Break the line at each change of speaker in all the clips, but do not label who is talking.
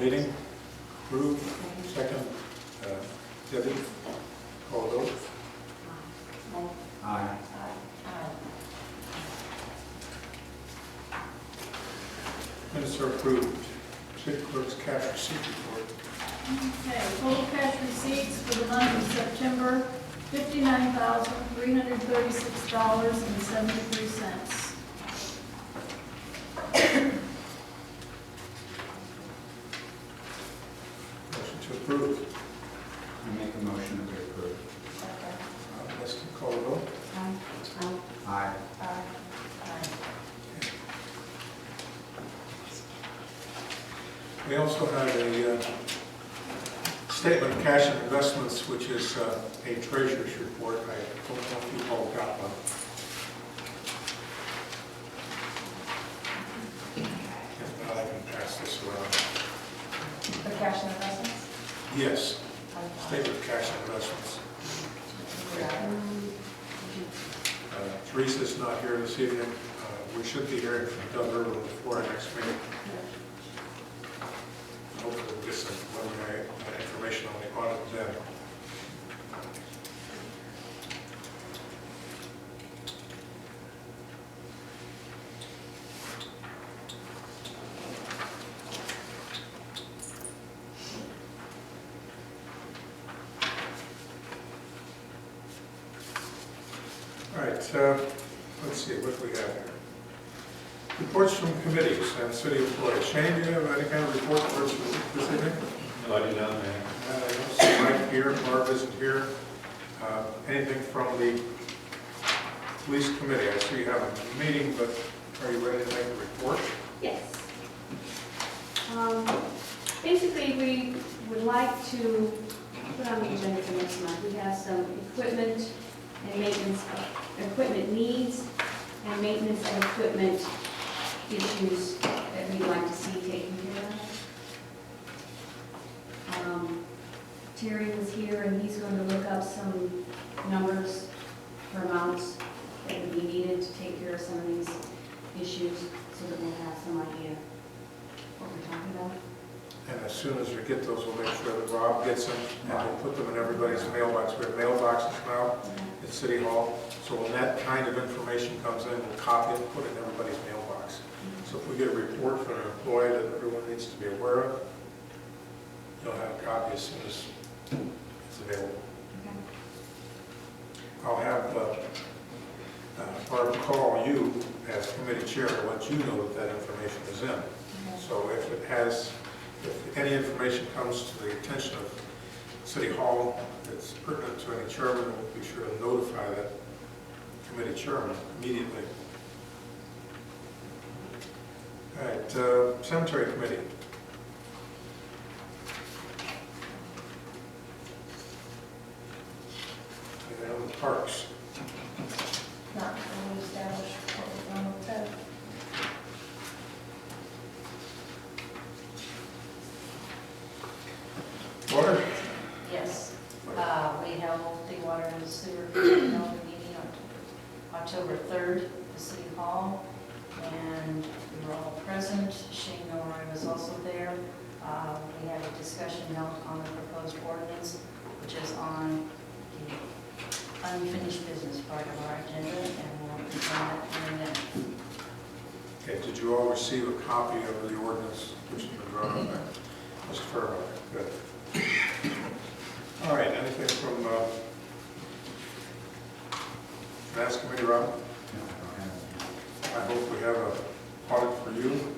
meeting, approved, second, uh, Debbie, call vote.
Aye.
Minutes are approved. City clerk's cash receipt report.
Okay, total cash receipts for the month of September, fifty-nine thousand, three hundred thirty-six dollars and seventy-three cents.
Motion to approve.
I make a motion that we approve.
Uh, Let's call vote.
Um,
Aye.
uh,
We also have a uh, statement of cash and investments, which is uh, a treasurer's report. I don't know if you all got one. If not, I can pass this around.
For cash and investments?
Yes, statement of cash and investments. Uh, Teresa's not here this evening. Uh, We should be hearing from Doug Irwin before our next meeting. Hopefully we'll get some preliminary uh, information on the audit then. All right, uh, let's see, what do we have here? Reports from committees and city employees. Shane, do you have any kind of report for us this evening?
No, I do not, Mayor.
Uh, I don't see Mike here, Barb isn't here. Uh, Anything from the police committee? I see you have a meeting, but are you ready to make a report?
Yes. Um, Basically, we would like to put on the agenda for next month, we have some equipment and maintenance, equipment needs and maintenance and equipment issues that we'd like to see taken care of. Um, Terry was here and he's going to look up some numbers or amounts that would be needed to take care of some of these issues so that we'll have some idea what we're talking about.
And as soon as we get those, we'll make sure that Rob gets them, and we'll put them in everybody's mailbox. We have mailboxes now at City Hall, so when that kind of information comes in, we'll copy it and put it in everybody's mailbox. So if we get a report from an employee that everyone needs to be aware of, you'll have a copy as soon as it's available.
Okay.
I'll have, uh, uh, Barb call you as committee chair to let you know that that information is in. So if it has, if any information comes to the attention of City Hall that's pertinent to any chairman, we'll be sure to notify that committee chairman immediately. All right, uh, cemetery committee. And then the parks.
Not fully established what we're going with that.
Water?
Yes, uh, we held the water and sewer meeting on October 3rd at the City Hall, and we were all present. Shane Milroy was also there. Uh, We had a discussion held on the proposed ordinance, which is on the unfinished business part of our agenda, and we'll be on that in a minute.
Okay, did you all receive a copy of the ordinance which has been drawn up by Mr. Furlong? Good. All right, anything from, uh, Finance Committee, Rob?
No, I don't have it.
I hope we have a audit for you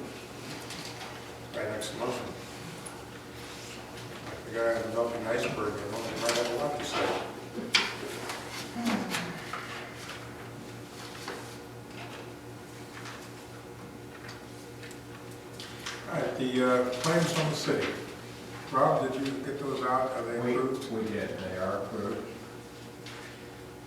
by next month. Like the guy in the melting iceberg, you know, he might have a lot to say. All right, the uh, claims from the city. Rob, did you get those out? Are they
We,
approved?
we did, they are approved.